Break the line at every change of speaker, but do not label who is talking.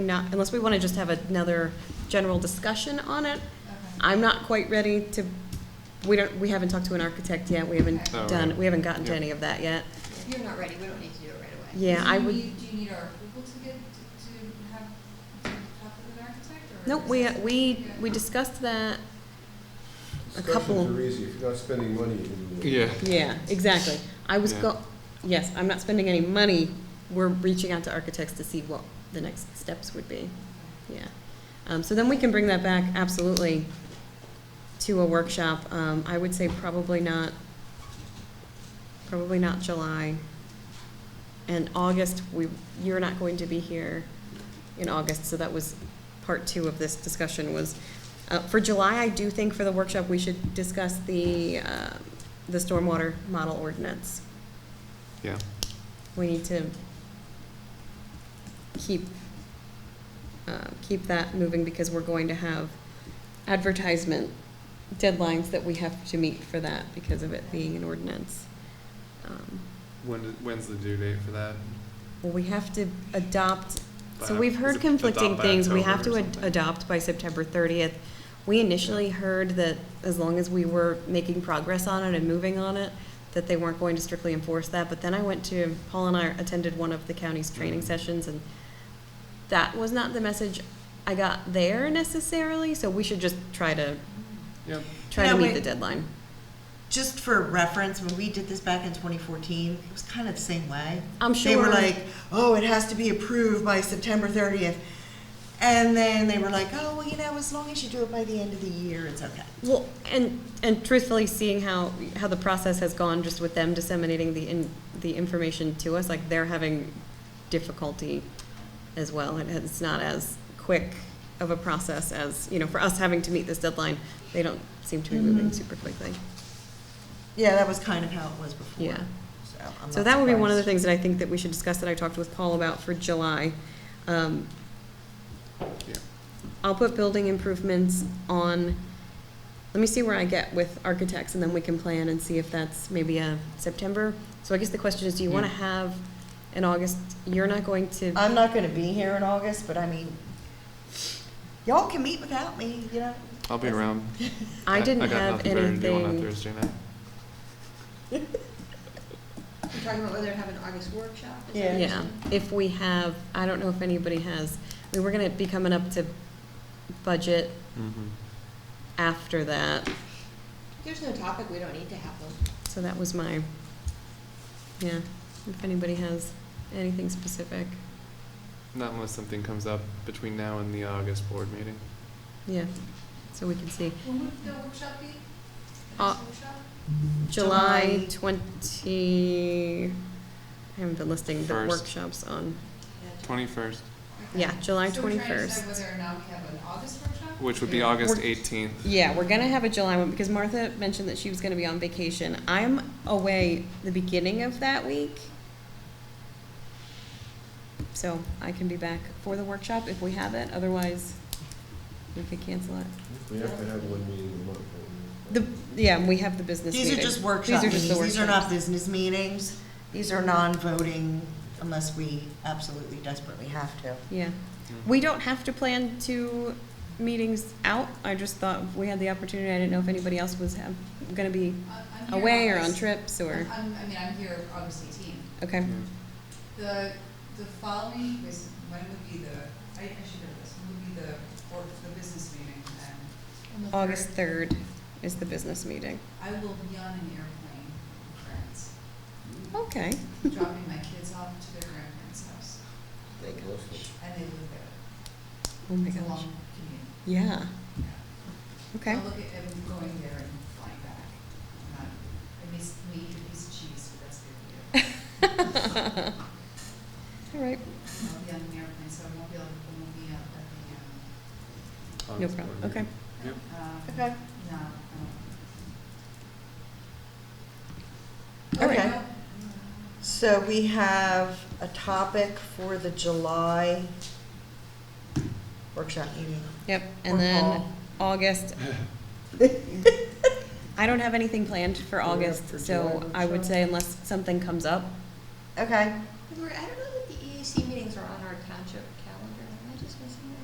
Not, unless we want to just have another general discussion on it, I'm not quite ready to, we don't, we haven't talked to an architect yet, we haven't
Oh,
done,
right.
we haven't gotten to
Yeah.
any of that yet.
If you're not ready, we don't need to do it right away.
Yeah,
Do
I
you
would-
need- Do you need our approval to get, to to have, to talk with an architect or?
No,
is
we,
it-
we,
Yeah.
we discussed that, a couple-
Discussions are easy, if you're not spending money, you can do it.
Yeah,
yeah, exactly. I was go, yes, I'm not spending any money, we're reaching out to architects to see what the next steps would be, yeah. Um, so then we can bring that back, absolutely, to a workshop, um, I would say probably not, probably not July. And August, we, you're not going to be here in August, so that was part two of this discussion was, uh, for July, I do think for the workshop, we should discuss the, uh, the stormwater model ordinance.
yeah.
We need to keep, uh, keep that moving because we're going to have advertisement deadlines that we have to meet for that because of it being an ordinance. Um,
When, when's the due date for that?
Well, we have to adopt So
By-
we've
is
heard
it
conflicting
adopt by
things. We
October
have
or
to ad-
something?
adopt by September 30th. We initially heard that as long as we were making progress on it and moving on it, that they weren't going to strictly enforce that. But then I went to, Paul and I attended one of the county's training
Mhm.
sessions, and that was not the message I got there necessarily. So we should just try to,
Yep.
try
Yeah,
to meet
we-
the deadline.
just for reference, when we did this back in 2014, it was kind of the same way.
I'm
They were
sure-
like, oh, it has to be approved by September 30th. And then they were like, oh, well, you know, as long as you do it by the end of the year, it's okay.
Well, and, and truthfully, seeing how, how the process has gone just with them disseminating the, in the information to us, like they're having difficulty as well. And it's not as quick of a process as, you know, for us having to meet this deadline, they don't seem to be moving
Mhm.
super quickly.
Yeah, that was kind of how it was before.
Yeah.
So, I'm
So
not
that would be one of the things
surprised.
that I think that we should discuss that I talked with Paul about for July. Um,
Yeah.
I'll put building improvements on, let me see where I get with architects, and then we can plan and see if that's maybe a September. So I guess the question is, do you wanna
Yeah.
have in August, you're not going to,
I'm not going to be here in August, but I mean, y'all can meet without me, you know?
I'll be around.
I didn't
got
have
nothing better to do On that
anything.
Thursday night.
You're talking about whether to have an August workshop? is that
Yeah.
what you're
Yeah,
saying?
if we have, I don't know if anybody has, I mean, we're gonna be coming up to budget
Mm-hmm.
after that,
There's no topic, we don't need to have one.
so that was my, yeah, if anybody has anything specific,
Not unless something comes up between now and the August board meeting.
yeah, so we can see.
When would the workshop be? The
Uh,
next workshop?
July
July.
twenty, I haven't been listing the
First.
workshops on,
Twenty-first,
Okay.
yeah, July
So we're trying to decide
twenty-first.
whether or not we have an August workshop?
which would be
or-
August
We're-
eighteenth.
Yeah, we're gonna have a July one, because Martha mentioned that she was gonna be on vacation. I'm away the beginning of that week. So I can be back for the workshop if we have it, otherwise we could cancel it.
We have to have one meeting a month. don't we?
The, yeah, and we have the business
These are
meeting.
just workshop
These are just
meetings,
the
these are not
workshops.
business meetings, these are non-voting unless we absolutely desperately have to.
Yeah. We don't have to plan two meetings out. I just thought if we had the opportunity. I didn't know if anybody else was have, gonna be
I- Uh, I'm here
away or on
August-
trips or,
I'm, I mean, I'm here August eighteenth.
okay.
The, the following, was when would be the, I, I should know this, when would be the, or the business meeting then?
August third is the business meeting.
I will be on an airplane with friends,
Okay.
dropping my kids off to their grandparents' house, and they live there.
Oh my
It's a
gosh.
long commute.
Yeah,
yeah.
okay.
I'll look at, I'm going there and flying back. Uh, Not- I missed me, a piece of cheese, so that's good.
All right,
I'll be on an airplane, so I won't be able, I won't be out at the, um,
no problem, okay.
Yep.
um,
Okay.
No, no.
All right.
Okay, so we have a topic for the July workshop meeting.
Yep,
Or
and then
Paul.
August. I don't have anything planned for
Do we have
August,
for
so
July
I would
workshop?
say unless something comes up,
Okay,
We're, I don't know E